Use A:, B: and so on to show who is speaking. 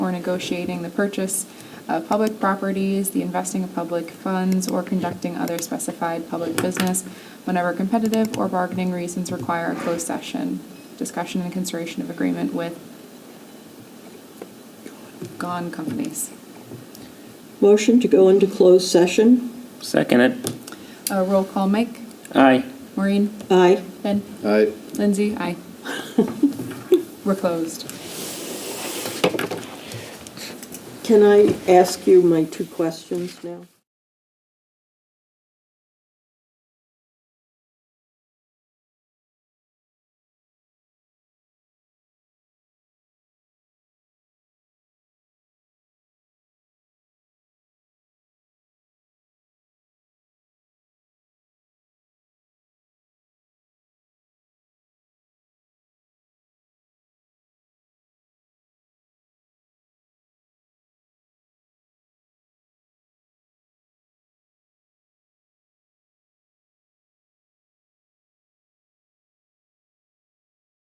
A: or negotiating the purchase of public properties, the investing of public funds, or conducting other specified public business whenever competitive or bargaining reasons require a closed session. Discussion and consideration of agreement with gone companies.
B: Motion to go into closed session.
C: Second it.
A: Uh, roll call, Mike?
C: Aye.
A: Maureen?
B: Aye.
A: Ben?
D: Aye.
A: Lindsay? Aye. We're closed.
B: Can I ask you my two questions now?